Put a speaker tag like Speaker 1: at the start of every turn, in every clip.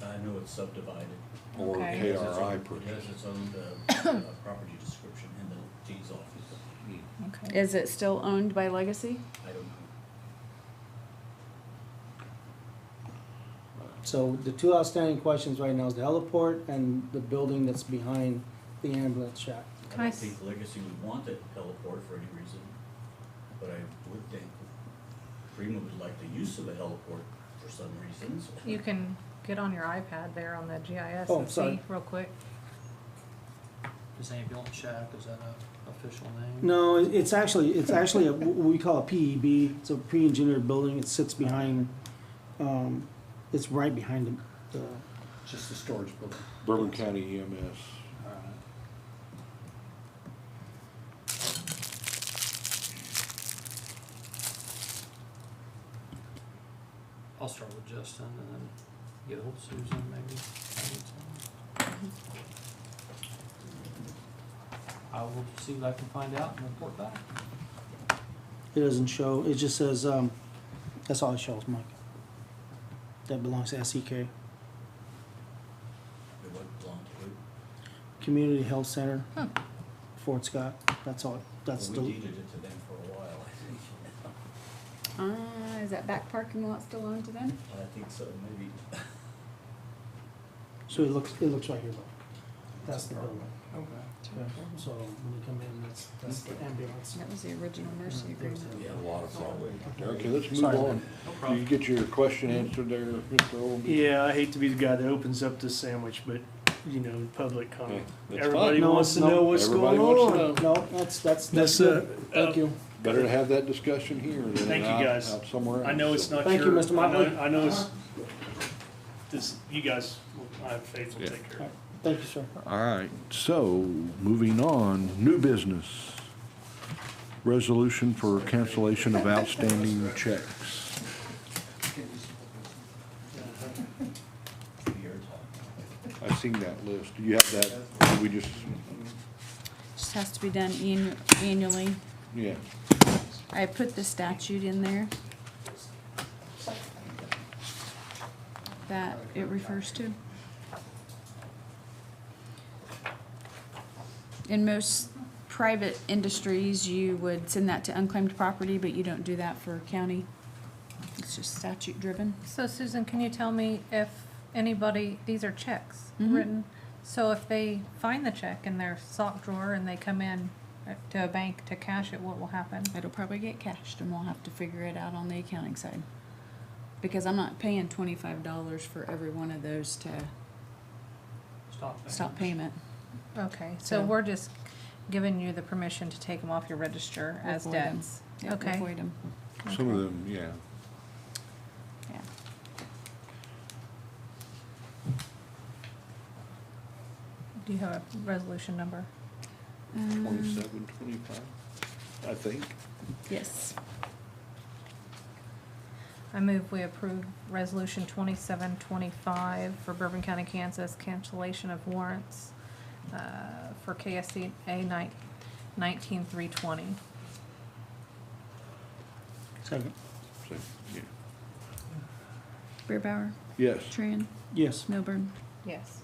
Speaker 1: was subdivided.
Speaker 2: or
Speaker 1: It
Speaker 3: Okay.
Speaker 1: has its own-
Speaker 2: KRI
Speaker 1: It
Speaker 2: purchase.
Speaker 1: has its own, uh, uh, property description in the deeds office.
Speaker 3: Okay.
Speaker 4: Is it still owned by Legacy?
Speaker 1: I don't know.
Speaker 5: So the two outstanding questions right now is the heliport and the building that's behind the ambulance shack.
Speaker 1: I
Speaker 4: Can I
Speaker 1: don't
Speaker 4: s-
Speaker 1: think Legacy would want that heliport for any reason, but I would think Prima would like the use of the heliport for some reasons.
Speaker 3: You can get on your iPad there on the GIS
Speaker 5: Oh,
Speaker 3: and see
Speaker 5: sorry.
Speaker 3: real quick.
Speaker 6: Is ambulance shack, is that a official name?
Speaker 5: No, it- it's actually, it's actually a- what we call a PEB, it's a pre-engineered building, it sits behind, um, it's right behind the, the,
Speaker 6: Just a storage building.
Speaker 2: Bourbon County E EMS.
Speaker 6: I'll start with Justin and then get hold of Susan maybe. I will see what I can find out and report back.
Speaker 5: it doesn't show, it just says, um, that's all it shows, Mike. That belongs to E SEK,
Speaker 1: It would belong to it.
Speaker 5: Community Health Center, Fort Scott, that's all, that's
Speaker 1: Well, We
Speaker 5: the,
Speaker 1: deeded it to them for a while, I think.
Speaker 4: Uh, is that back parking lot still owned to them?
Speaker 1: I think so, maybe.
Speaker 5: so it looks, it looks right here, though. That's the building.
Speaker 6: Okay.
Speaker 5: Yeah, So when you come in, that's, that's the ambulance.
Speaker 4: That was the original Mercy agreement.
Speaker 1: Yeah.
Speaker 2: A lot of problems. Okay, let's move
Speaker 5: Sorry.
Speaker 2: on.
Speaker 6: No
Speaker 2: Did you
Speaker 6: problem.
Speaker 2: get your question answered there, Mr. Oldby?
Speaker 7: Yeah, I hate to be the guy that opens up the sandwich, but you know, public
Speaker 2: Yeah,
Speaker 7: comment.
Speaker 2: that's fine.
Speaker 7: Everybody
Speaker 5: No,
Speaker 7: wants to
Speaker 5: no.
Speaker 7: know what's
Speaker 2: Everybody
Speaker 7: going
Speaker 2: wants to
Speaker 7: on.
Speaker 2: know.
Speaker 5: Oh, No, that's, that's, that's
Speaker 7: That's,
Speaker 5: good.
Speaker 7: uh,
Speaker 5: Thank you.
Speaker 2: Better to have that discussion here than
Speaker 7: Thank you,
Speaker 2: out,
Speaker 7: guys.
Speaker 2: out somewhere else.
Speaker 7: uh, I know it's
Speaker 2: So-
Speaker 7: not
Speaker 5: Thank you,
Speaker 7: your.
Speaker 5: Mr.
Speaker 7: I know-
Speaker 5: Motley.
Speaker 7: I know it's, this, you guys, I have faith will
Speaker 2: Yeah.
Speaker 7: take care of it.
Speaker 5: Thank you, sir.
Speaker 2: All right, so moving on, new business. Resolution for cancellation of outstanding checks.
Speaker 1: Your time.
Speaker 2: I seen that list. Do you have that? Did We just,
Speaker 4: Just has to be done annu- annually.
Speaker 2: yeah.
Speaker 4: I put the statute in there that it refers to. In most private industries, you would send that to unclaimed property, but you don't do that for county. It's just statute driven.
Speaker 3: So Susan, can you tell me if anybody, these are checks
Speaker 4: Mhm.
Speaker 3: written, so if they find the check in their sock drawer and they come in uh, to a bank to cash it, what will happen?
Speaker 4: It'll probably get cashed and we'll have to figure it out on the accounting side. Because I'm not paying twenty-five dollars for every one of those to
Speaker 6: Stop.
Speaker 4: stop payment.
Speaker 3: Okay, so
Speaker 4: So-
Speaker 3: we're just giving you the permission to take them off your register
Speaker 4: We'll
Speaker 3: as
Speaker 4: void 'em.
Speaker 3: debts?
Speaker 4: Yeah, we'll
Speaker 3: Okay.
Speaker 4: void 'em.
Speaker 2: Some of them, yeah.
Speaker 4: Yeah.
Speaker 3: Do you have a resolution number?
Speaker 4: Um,
Speaker 2: Twenty-seven, twenty-five, I think.
Speaker 4: Yes.
Speaker 3: I move we approve Resolution twenty-seven twenty-five for Bourbon County, Kansas, cancellation of warrants uh, for KSCA nineteen nineteen three twenty.
Speaker 5: Second.
Speaker 2: So, yeah.
Speaker 4: Beer Bauer,
Speaker 2: Yes.
Speaker 4: Tran,
Speaker 5: Yes.
Speaker 4: Milburn.
Speaker 3: Yes.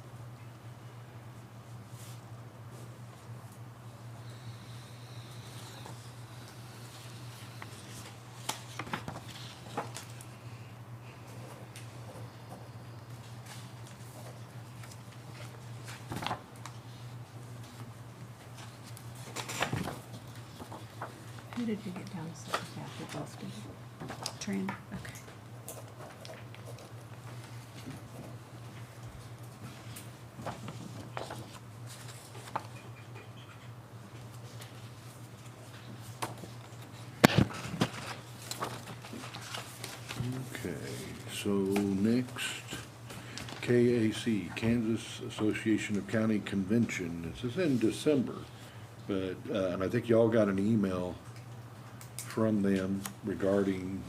Speaker 3: Who did you get downstairs after Austin?
Speaker 4: Tran.
Speaker 3: Okay.
Speaker 2: Okay, so next, KAC, Kansas Association of County Convention. This is in December, but, uh, and I think y'all got an email from them regarding,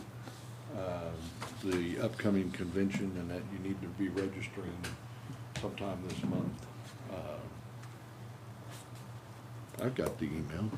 Speaker 2: um, the upcoming convention and that you need to be registering sometime this month. Uh, I've Um, got the email.